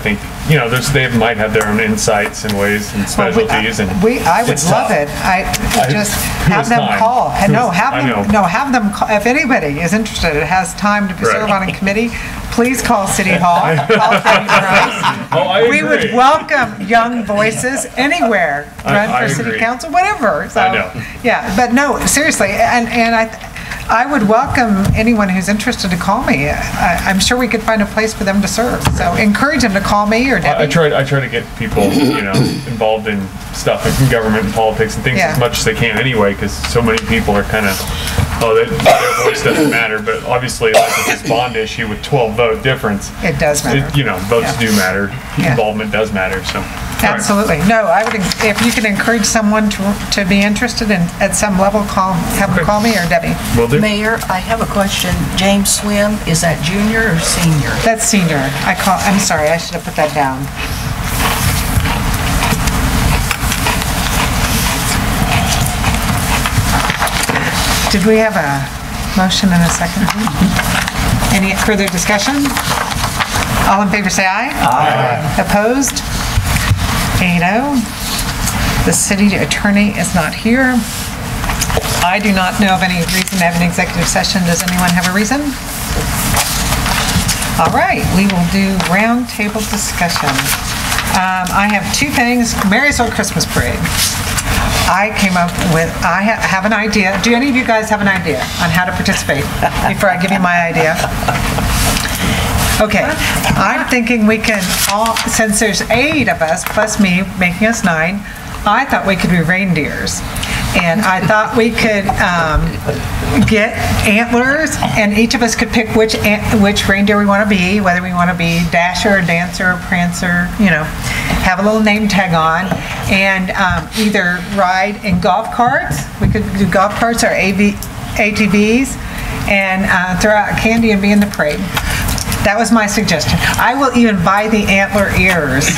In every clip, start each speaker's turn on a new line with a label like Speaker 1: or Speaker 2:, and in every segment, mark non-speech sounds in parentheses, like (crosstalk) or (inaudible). Speaker 1: I think, you know, there's, they might have their own insights and ways and
Speaker 2: Well, we- uh,
Speaker 1: specialties and.
Speaker 2: We, I would
Speaker 1: it's
Speaker 2: love
Speaker 1: tough.
Speaker 2: it. I,
Speaker 1: I-
Speaker 2: just
Speaker 1: who
Speaker 2: have
Speaker 1: has
Speaker 2: them
Speaker 1: time?
Speaker 2: call.
Speaker 1: Who
Speaker 2: No,
Speaker 1: has-
Speaker 2: have
Speaker 1: I
Speaker 2: them,
Speaker 1: know.
Speaker 2: no, have them, ca- if anybody is interested, it has time to
Speaker 1: Right.
Speaker 2: serve on a committee, please
Speaker 1: (laughs)
Speaker 2: call City Hall, call City Price.
Speaker 1: Oh, (laughs) I
Speaker 2: We would
Speaker 1: agree.
Speaker 2: welcome young voices anywhere,
Speaker 1: I-
Speaker 2: run
Speaker 1: I
Speaker 2: for city
Speaker 1: agree.
Speaker 2: council, whatever. So,
Speaker 1: I know.
Speaker 2: Yeah, but no, seriously, and, and I, I would welcome anyone who's interested to call me. I, I'm sure we could find a place for them to serve. So encourage them to call me or
Speaker 1: I I
Speaker 2: Debbie.
Speaker 1: try, I try to get people, you
Speaker 2: (coughs)
Speaker 1: know, involved in stuff in government and politics and things as
Speaker 2: Yeah.
Speaker 1: much as they can anyway, because so many people are kind of, oh, they- their voice doesn't matter, but obviously, like with this bond issue with 12 vote difference,
Speaker 2: It does matter.
Speaker 1: it- you know, votes
Speaker 2: Yeah.
Speaker 1: do matter,
Speaker 2: Yeah.
Speaker 1: involvement does matter, so. all right.
Speaker 2: Absolutely. No, I would, en- if you can encourage someone to, to be interested in, at some level, call, have them call me or Debbie.
Speaker 1: Will do.
Speaker 3: Mayor, I have a question. James Swim, is that junior or senior?
Speaker 2: That's senior. I call, I'm sorry, I should have put that down. Did we have a motion and a second? Any further discussion? All in favor, say aye. Aye. Opposed? Eight oh. The city attorney is not here. I do not know of any reason to have an executive session. Does anyone have a reason? All right, we will do roundtable discussion. Um, I have two things, Marysville Christmas Parade. I came up with, I ha- have an idea, do any of you guys have an idea on how to participate? Before I give you my idea? Okay, I'm thinking we can all, since there's eight of us, plus me, making us nine, I thought we could be reindeers. And I thought we could um, get antlers, and each of us could pick which, ant- which reindeer we want to be, whether we want to be Dasher, Dancer, Prancer, you know, have a little name tag on, and um, either ride in golf carts, we could do golf carts or AV ATVs, and uh, throw out candy and be in the parade. That was my suggestion. I will even buy the antler ears.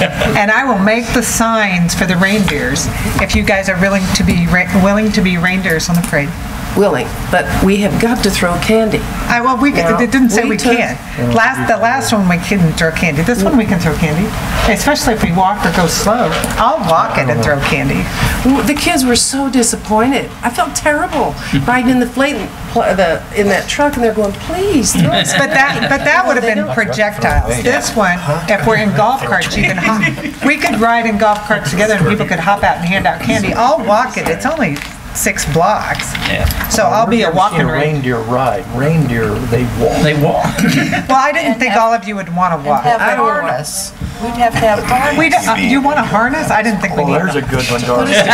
Speaker 2: And I will make the signs for the reindeers if you guys are willing to be, re- willing to be reindeers on the parade.
Speaker 4: willing, but we have got to throw candy.
Speaker 2: I, well, we,
Speaker 4: Yeah.
Speaker 2: it didn't say
Speaker 4: We
Speaker 2: we
Speaker 4: took-
Speaker 2: can't. Last, the last one, we couldn't throw candy. This one, we can throw candy, especially if we walk or go slow. I'll walk it and throw candy.
Speaker 4: W- The kids were so disappointed. I felt terrible riding in the flat, pl- the, in that truck, and they're going, please, throw us.
Speaker 2: But that, but that would have been projectiles. This one, if we're in golf carts, you can hop, we could ride in golf carts together and people could hop out and hand out candy. I'll walk it, it's only six blocks. So I'll be a walking rain.
Speaker 5: Reindeer ride, reindeer, they walk.
Speaker 6: They walk.
Speaker 2: Well, I didn't think all of you would want to
Speaker 3: Have
Speaker 2: walk.
Speaker 3: a
Speaker 4: I don't know.
Speaker 3: harness. We'd have to have a
Speaker 2: We,
Speaker 3: harness.
Speaker 2: don't- uh, you want a harness? I didn't think we
Speaker 5: Well,
Speaker 2: needed.
Speaker 5: Oh, there's a
Speaker 2: one.
Speaker 5: good one, Darcy.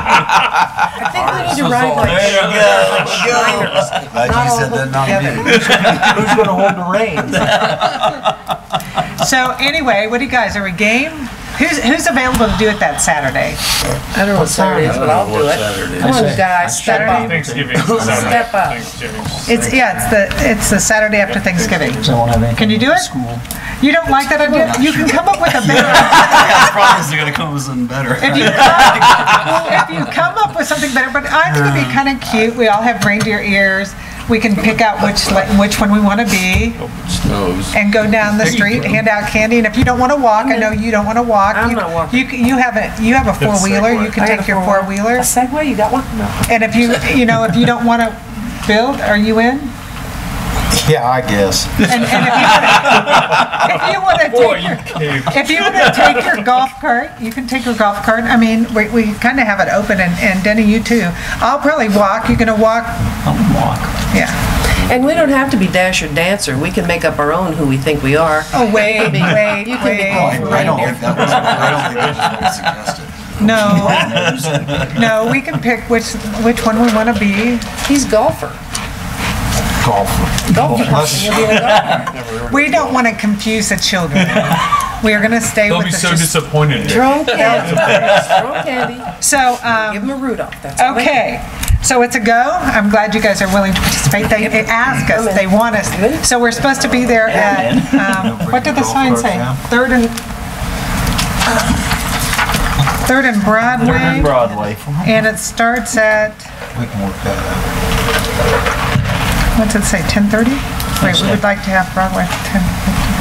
Speaker 4: I think we need to ride like
Speaker 6: There you go.
Speaker 4: minors,
Speaker 7: Glad
Speaker 4: not
Speaker 7: you
Speaker 4: all
Speaker 7: said that,
Speaker 4: hooked together.
Speaker 7: not me.
Speaker 5: Who's gonna hold the reins?
Speaker 2: So anyway, what do you guys, are we game? Who's, who's available to do it that Saturday?
Speaker 4: I don't know what Saturday is, but I'll do it. Come on, guys, step up.
Speaker 1: Thanksgiving. Saturday.
Speaker 4: Step up.
Speaker 1: Thanksgiving.
Speaker 2: It's, yeah, it's the, it's the Saturday after Thanksgiving.
Speaker 5: Don't have anything
Speaker 2: Can you do it? You don't like that idea? You can come up with a
Speaker 6: (laughs)
Speaker 2: better
Speaker 6: I promise they're gonna come up with something better.
Speaker 2: If you, come, if you come up with something better, but I think it'd be kind of cute. We all have reindeer ears. We can pick out which like, which one we want to be, and go down the street, hand out candy. And if you don't want to walk, I know you don't want to walk.
Speaker 4: I'm
Speaker 2: you-
Speaker 4: not walking.
Speaker 2: You can- you have a you have a four wheeler. You can
Speaker 4: I got
Speaker 2: take
Speaker 4: a
Speaker 2: your four
Speaker 4: four-wheeler. A
Speaker 2: wheeler.
Speaker 4: Segway, you got one? No.
Speaker 2: And if you you know if you don't want to build, are you in?
Speaker 7: Yeah, I guess.
Speaker 2: And, and if you wanna- if you want to
Speaker 1: Boy,
Speaker 2: take
Speaker 1: you
Speaker 2: your
Speaker 1: caved.
Speaker 2: If you want to take your golf cart, you can take your golf cart. I mean, we, we kind of have it open, and, and Denny, you too. I'll probably walk. You're gonna walk?
Speaker 6: I'll walk.
Speaker 2: Yeah.
Speaker 4: And we don't have to be Dash or Dancer. We can make up our own who we think we are.
Speaker 2: Oh, wait, wait,
Speaker 4: You can be
Speaker 2: wait.
Speaker 4: golf.
Speaker 7: I don't think that was, I don't think that was suggested.
Speaker 2: No, no, we can pick which, which one we want to be.
Speaker 4: He's golfer.
Speaker 7: Golf. Unless-
Speaker 2: We don't want to confuse the children. We are gonna stay
Speaker 1: They'll
Speaker 2: with
Speaker 1: be
Speaker 2: the.
Speaker 1: so
Speaker 2: just-
Speaker 1: disappointed.
Speaker 4: Throw candy. Throw candy.
Speaker 2: So, um,
Speaker 4: Give him a Rudolph, that's all. they
Speaker 2: Okay,
Speaker 4: get.
Speaker 2: so it's a go. I'm glad you guys are willing to participate. They they ask us, they want us. So we're supposed to be there at, (laughs) um, what did the sign say? Third and, Third and Broadway,
Speaker 5: Broadway.
Speaker 2: and it starts at,
Speaker 7: We can work that
Speaker 2: what's it say, 10:30? Wait, we would like to have Broadway at 10:50.